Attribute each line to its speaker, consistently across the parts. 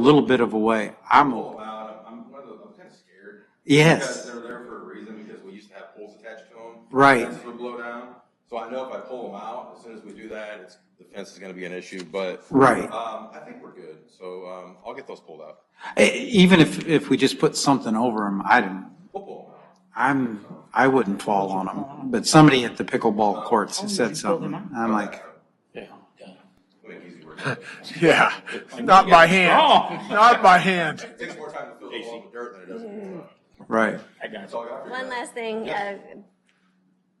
Speaker 1: little bit of a way. I'm,
Speaker 2: all about it. I'm, one of those- I'm kind of scared.
Speaker 1: Yes.
Speaker 2: Because they're there for a reason, because we used to have poles attached to them.
Speaker 1: Right.
Speaker 2: Fences would blow down, so I know if I pull them out, as soon as we do that, it's, the fence is gonna be an issue, but.
Speaker 1: Right.
Speaker 2: Um, I think we're good, so, um, I'll get those pulled out.
Speaker 1: e- even if, if we just put something over them, I don't,
Speaker 2: We'll pull them out.
Speaker 1: I'm, I wouldn't fall on them. But somebody at the pickleball courts said something. I'm like,
Speaker 2: Make it easy work.
Speaker 3: Yeah, Oh. not by hand, not by hand.
Speaker 2: It Takes more time to fill the wall with dirt than it does. with water.
Speaker 1: right.
Speaker 2: That's all I got for you.
Speaker 4: One
Speaker 2: guys.
Speaker 4: last thing.
Speaker 2: Yes.
Speaker 4: uh,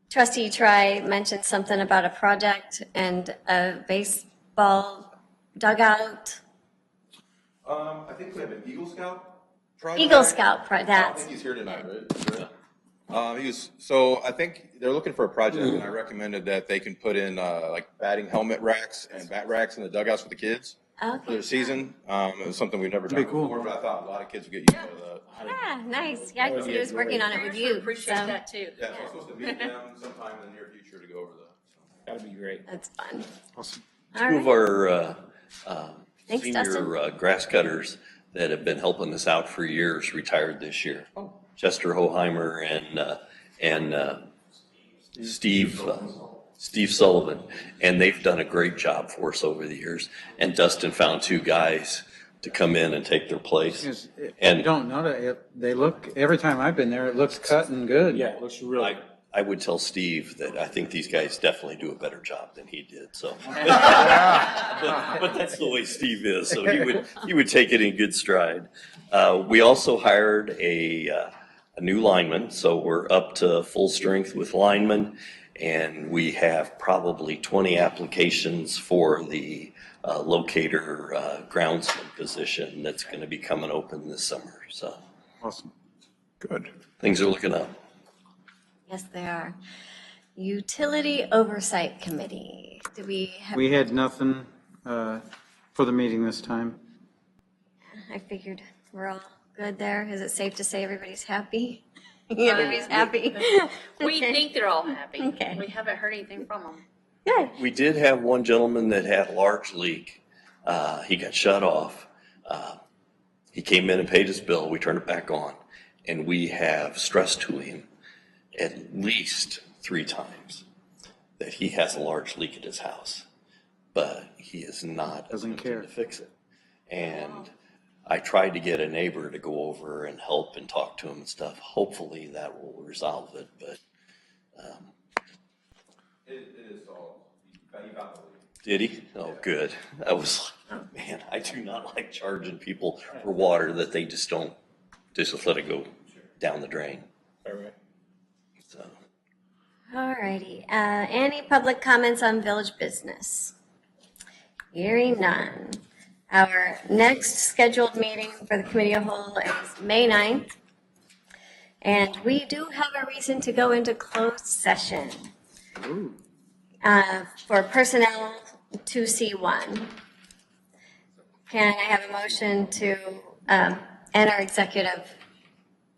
Speaker 4: Trustee Tri mentioned something about a project and a baseball dugout,
Speaker 2: Um, I think we have an Eagle Scout. project.
Speaker 4: Eagle Scout, pro-
Speaker 2: I don't
Speaker 4: that's,
Speaker 2: think he's here tonight, right? Um, he was, so I think they're looking for a project and I
Speaker 1: Mm-hmm.
Speaker 2: recommended that they can put in, uh, like batting helmet racks and bat racks in the dugouts for the kids for
Speaker 4: okay.
Speaker 2: their season. Um, it was something we've never done
Speaker 1: That'd be cool.
Speaker 2: before, but I thought a lot of kids would get used to that.
Speaker 4: Yeah, nice. Yeah, 'cause he was working on it with you. so
Speaker 5: Appreciate that too.
Speaker 2: Yeah, so I'm supposed to meet them sometime in the near future to go over that.
Speaker 6: That'd be great.
Speaker 4: That's fun. All
Speaker 7: Two of
Speaker 4: right.
Speaker 7: our uh, um,
Speaker 4: Thanks, Dustin.
Speaker 7: senior uh, grass cutters that have been helping us out for years retired this year.
Speaker 4: Oh.
Speaker 7: Chester Hoheimer and, uh, and uh, Steve, uh, Steve Sullivan. And they've done a great job for us over the years. And Dustin found two guys to come in and take their place.
Speaker 1: uh, You
Speaker 7: And
Speaker 1: don't know that, it- they look, every time I've been there, it looks cut and good.
Speaker 6: Yeah, it looks really,
Speaker 7: I, I would tell Steve that I think these guys definitely do a better job than he did, so. But but that's the way Steve is, so he would, he would take it in good stride. Uh, we also hired a, uh, a new lineman, so we're up to full strength with linemen. And we have probably twenty applications for the, uh, locator, uh, groundsman position that's gonna be coming open this summer, so
Speaker 1: Awesome.
Speaker 3: Good.
Speaker 7: things are looking up.
Speaker 4: Yes, they are. Utility Oversight Committee. Do we have,
Speaker 1: We had nothing, uh, for the meeting this time.
Speaker 4: I figured we're all good there. Is it safe to say everybody's happy? Everybody's happy?
Speaker 5: We think they're all happy.
Speaker 4: Okay.
Speaker 5: We haven't heard anything from them.
Speaker 4: Good.
Speaker 7: We did have one gentleman that had a large leak. Uh, he got shut off. Uh, he came in and paid his bill. We turned it back on. And we have stressed to him at least three times that he has a large leak at his house. But he is not
Speaker 1: Doesn't
Speaker 7: attempting
Speaker 1: care.
Speaker 7: to fix it. And I tried to get a neighbor to go over and help and talk to him and stuff. Hopefully that will resolve it, but
Speaker 2: It, it is all, you got the lead.
Speaker 7: Did he? Oh, good. I was like, "Oh, man, I do not like charging people for water that they just don't, just let it go down the drain.
Speaker 6: alright.
Speaker 7: So,
Speaker 4: All righty. Uh, Any public comments on village business? Hearing none. Our next scheduled meeting for the committee of whole is May 9th. And we do have a reason to go into closed session uh, for personnel 2C1. Can I have a motion to um, enter executive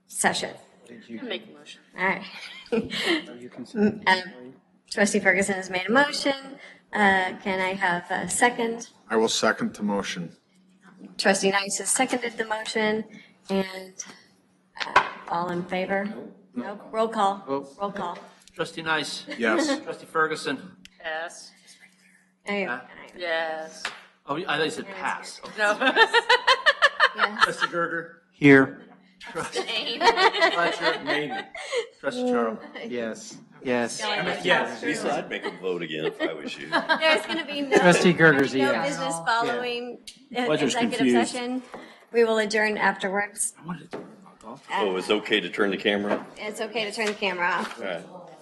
Speaker 4: session?
Speaker 5: I Make a motion.
Speaker 4: All right.
Speaker 1: You can-
Speaker 4: Um, Trustee Ferguson has made a motion. Uh, Can I have a second?
Speaker 3: I will second the motion.
Speaker 4: Trustee Nice has seconded the motion, and uh, all in favor? No, roll call,
Speaker 1: Nope.
Speaker 4: roll call.
Speaker 8: Trustee Nice.
Speaker 3: Yes.
Speaker 8: Trustee Ferguson.
Speaker 5: Yes,
Speaker 4: Anyway,
Speaker 1: Ah.
Speaker 8: Huh?
Speaker 5: yes.
Speaker 8: Oh, I thought you said pass.
Speaker 5: No.
Speaker 4: yes.
Speaker 8: Trustee Gerger.
Speaker 1: Here,
Speaker 8: Fletcher. Maybe. Trustee Charles.
Speaker 1: yes, yes.
Speaker 7: Lisa, I'd make them vote again if I was you.
Speaker 4: There's going to be no.
Speaker 1: Trustee Gerger's a
Speaker 4: No
Speaker 1: yes.
Speaker 4: business following uh,
Speaker 6: Ledger's
Speaker 4: executive
Speaker 6: confused.
Speaker 4: session. We will adjourn afterwards.
Speaker 7: Oh, it's okay to turn the camera?
Speaker 4: It's okay to turn the camera off.
Speaker 7: All right.